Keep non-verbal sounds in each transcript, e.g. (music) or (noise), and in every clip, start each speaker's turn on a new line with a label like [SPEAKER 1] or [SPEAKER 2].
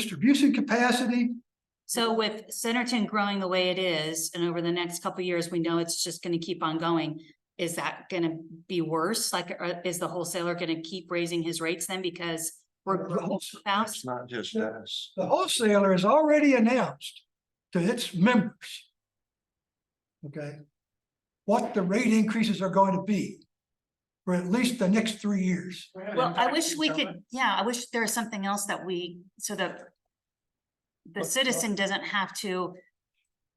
[SPEAKER 1] distribution capacity.
[SPEAKER 2] So with Centerton growing the way it is, and over the next couple of years, we know it's just gonna keep on going. Is that gonna be worse? Like, uh, is the wholesaler gonna keep raising his rates then because we're
[SPEAKER 1] The
[SPEAKER 2] growing
[SPEAKER 1] wholes-
[SPEAKER 2] so fast?
[SPEAKER 3] It's not just us.
[SPEAKER 1] The wholesaler has already announced to its members. Okay? What the rate increases are going to be. For at least the next three years.
[SPEAKER 2] Well, I wish we could, yeah, I wish there was something else that we, so that the
[SPEAKER 4] What-
[SPEAKER 2] citizen doesn't have to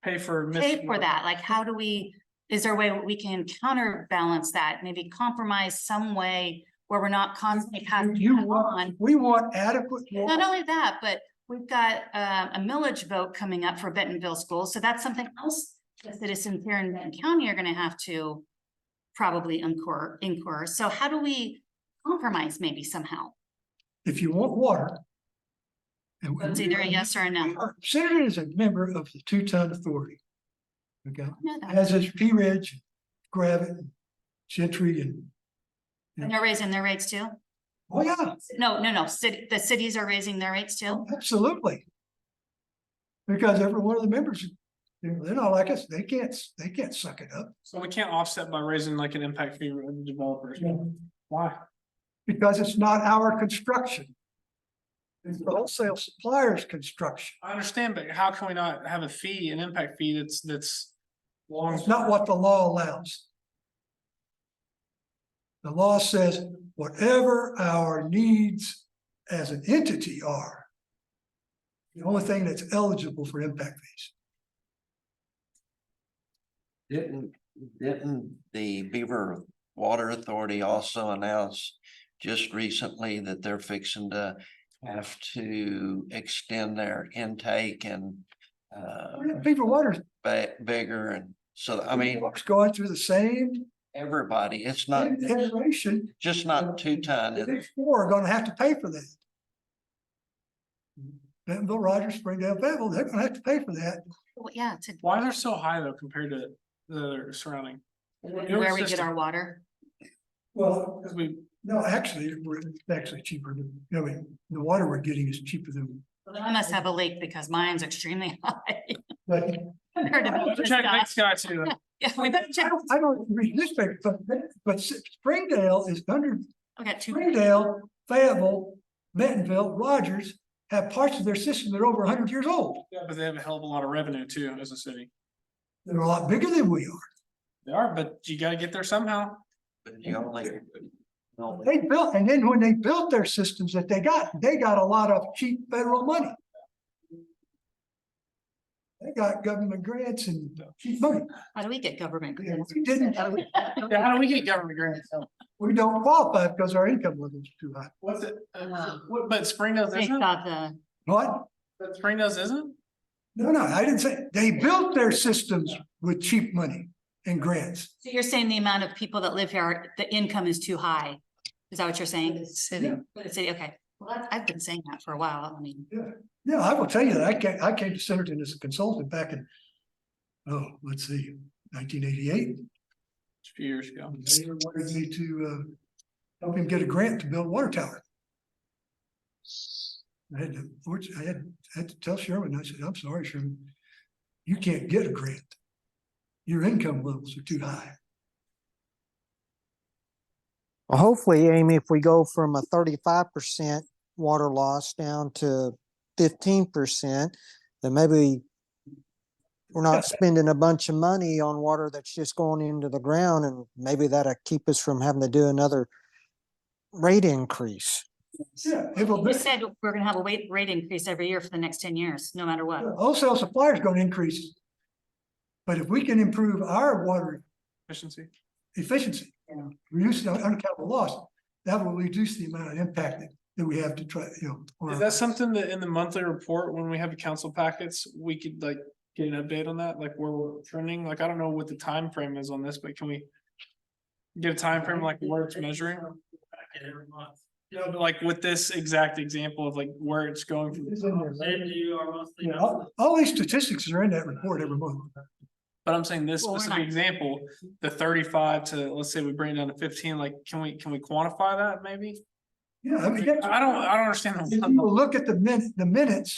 [SPEAKER 4] Pay for.
[SPEAKER 2] pay for that. Like, how do we, is there a way we can counterbalance that? Maybe compromise some way where we're not constantly passing
[SPEAKER 1] You
[SPEAKER 2] that on?
[SPEAKER 1] want, we want adequate. wa-
[SPEAKER 2] Not only that, but we've got uh, a millage vote coming up for Bentonville schools, so that's something else the citizens here in Benton County are gonna have to probably incur, incur. So how do we compromise maybe somehow?
[SPEAKER 1] If you want water. and we-
[SPEAKER 2] It's either a yes or a no.
[SPEAKER 1] Senator is a member of the two-ton authority. Okay?
[SPEAKER 2] No, that-
[SPEAKER 1] As is P Ridge, Gravit, Gentry and,
[SPEAKER 2] And they're raising their rates too?
[SPEAKER 1] oh yeah,
[SPEAKER 2] No, no, no, city, the cities are raising their rates too?
[SPEAKER 1] absolutely. Because every one of the members, you know, they're not like us, they can't, they can't suck it up.
[SPEAKER 4] So we can't offset by raising like an impact fee with the developers. Why?
[SPEAKER 1] Because it's not our construction. It's the wholesale supplier's construction.
[SPEAKER 4] I understand, but how can we not have a fee, an impact fee that's, that's long?
[SPEAKER 1] It's not what the law allows. The law says whatever our needs as an entity are. The only thing that's eligible for impact fees.
[SPEAKER 3] Didn't, didn't the Beaver Water Authority also announce just recently that they're fixing to have to extend their intake and uh,
[SPEAKER 1] Beaver Water's
[SPEAKER 3] ba- bigger and so, I mean,
[SPEAKER 1] It's going through the same
[SPEAKER 3] everybody, it's not,
[SPEAKER 1] iteration.
[SPEAKER 3] just not two ton.
[SPEAKER 1] The
[SPEAKER 3] it's-
[SPEAKER 1] big four are gonna have to pay for that. Bentonville, Rogers, Springdale, Fayetteville, they're gonna have to pay for that.
[SPEAKER 2] Well, Yeah, to
[SPEAKER 4] Why they're so high though compared to the other surrounding?
[SPEAKER 2] where we get our water.
[SPEAKER 1] Well,
[SPEAKER 4] Cause we,
[SPEAKER 1] no, actually, we're- it's actually cheaper than, I mean, the water we're getting is cheaper than,
[SPEAKER 2] I must have a leak because mine's extremely (laughs) high.
[SPEAKER 1] but
[SPEAKER 2] compared to
[SPEAKER 4] We'll
[SPEAKER 2] Bentonville
[SPEAKER 4] check next
[SPEAKER 2] Scott's. (laughs)
[SPEAKER 4] guy too.
[SPEAKER 2] Yeah, we better
[SPEAKER 1] I
[SPEAKER 2] check.
[SPEAKER 1] don't, I don't read newspapers, but, but Springdale is under,
[SPEAKER 2] I got two.
[SPEAKER 1] Springdale, Fayetteville, Bentonville, Rogers have parts of their system that are over hundred years old.
[SPEAKER 4] Yeah, But they have a hell of a lot of revenue too as a city.
[SPEAKER 1] They're a lot bigger than we are.
[SPEAKER 4] They are, but you gotta get there somehow.
[SPEAKER 3] But you only, only
[SPEAKER 1] They built, and then when they built their systems that they got, they got a lot of cheap federal money. They got government grants and cheap money.
[SPEAKER 2] How do we get government
[SPEAKER 1] And
[SPEAKER 2] grants?
[SPEAKER 1] We didn't,
[SPEAKER 4] Yeah, how do we get government grants?
[SPEAKER 1] we don't qualify because our income level is too high.
[SPEAKER 4] What's it? uh,
[SPEAKER 2] Wow.
[SPEAKER 4] what- But Springdale's
[SPEAKER 2] They
[SPEAKER 4] isn't,
[SPEAKER 2] Uh-huh. thought the,
[SPEAKER 1] What?
[SPEAKER 4] But Springdale's isn't?
[SPEAKER 1] No, no, I didn't say, they built their systems with cheap money and grants.
[SPEAKER 2] so you're saying the amount of people that live here, the income is too high? Is that what you're saying? City. The city, okay. Well, that's- I've been saying that for a while. I mean,
[SPEAKER 1] Yeah, I will tell you that I came, I came to Centerton as a consultant back in, oh, let's see, nineteen eighty-eight.
[SPEAKER 4] A few years ago.
[SPEAKER 1] Um, They wanted me to uh help him get a grant to build a water tower. I had to, fortu- I had, I had to tell Sherman, I said, I'm sorry, Sherman, you can't get a grant. Your income levels are too high.
[SPEAKER 5] Well, hopefully, Amy, if we go from a thirty-five percent water loss down to fifteen percent, then maybe we're not spending a bunch of money on water that's just going into the ground and maybe that'll keep us from having to do another rate increase.
[SPEAKER 1] Yeah. If a
[SPEAKER 2] you
[SPEAKER 1] bit-
[SPEAKER 2] said we're gonna have a weight rate increase every year for the next ten years, no matter what.
[SPEAKER 1] Wholesale suppliers gonna increase. But if we can improve our water
[SPEAKER 4] Efficiency.
[SPEAKER 1] efficiency, reduce the unaccountable loss, that will reduce the amount of impact that- that we have to try, you know. on
[SPEAKER 4] Is
[SPEAKER 1] our-
[SPEAKER 4] that something that in the monthly report, when we have council packets, we could like get an update on that, like where we're trending? Like, I don't know what the time frame is on this, but can we? Get a time frame like where it's measuring? No, but like with this exact example of like where it's going. from-
[SPEAKER 1] It's in there, Yeah, all, all these statistics are in that report every month.
[SPEAKER 4] But I'm saying this
[SPEAKER 2] Well, we're
[SPEAKER 4] specific
[SPEAKER 2] not-
[SPEAKER 4] example, the thirty-five to, let's say we bring it down to fifteen, like, can we, can we quantify that maybe?
[SPEAKER 1] Yeah, I mean, that's-
[SPEAKER 4] I don't, I don't understand.
[SPEAKER 1] if
[SPEAKER 4] the
[SPEAKER 1] you look at the min, the minutes,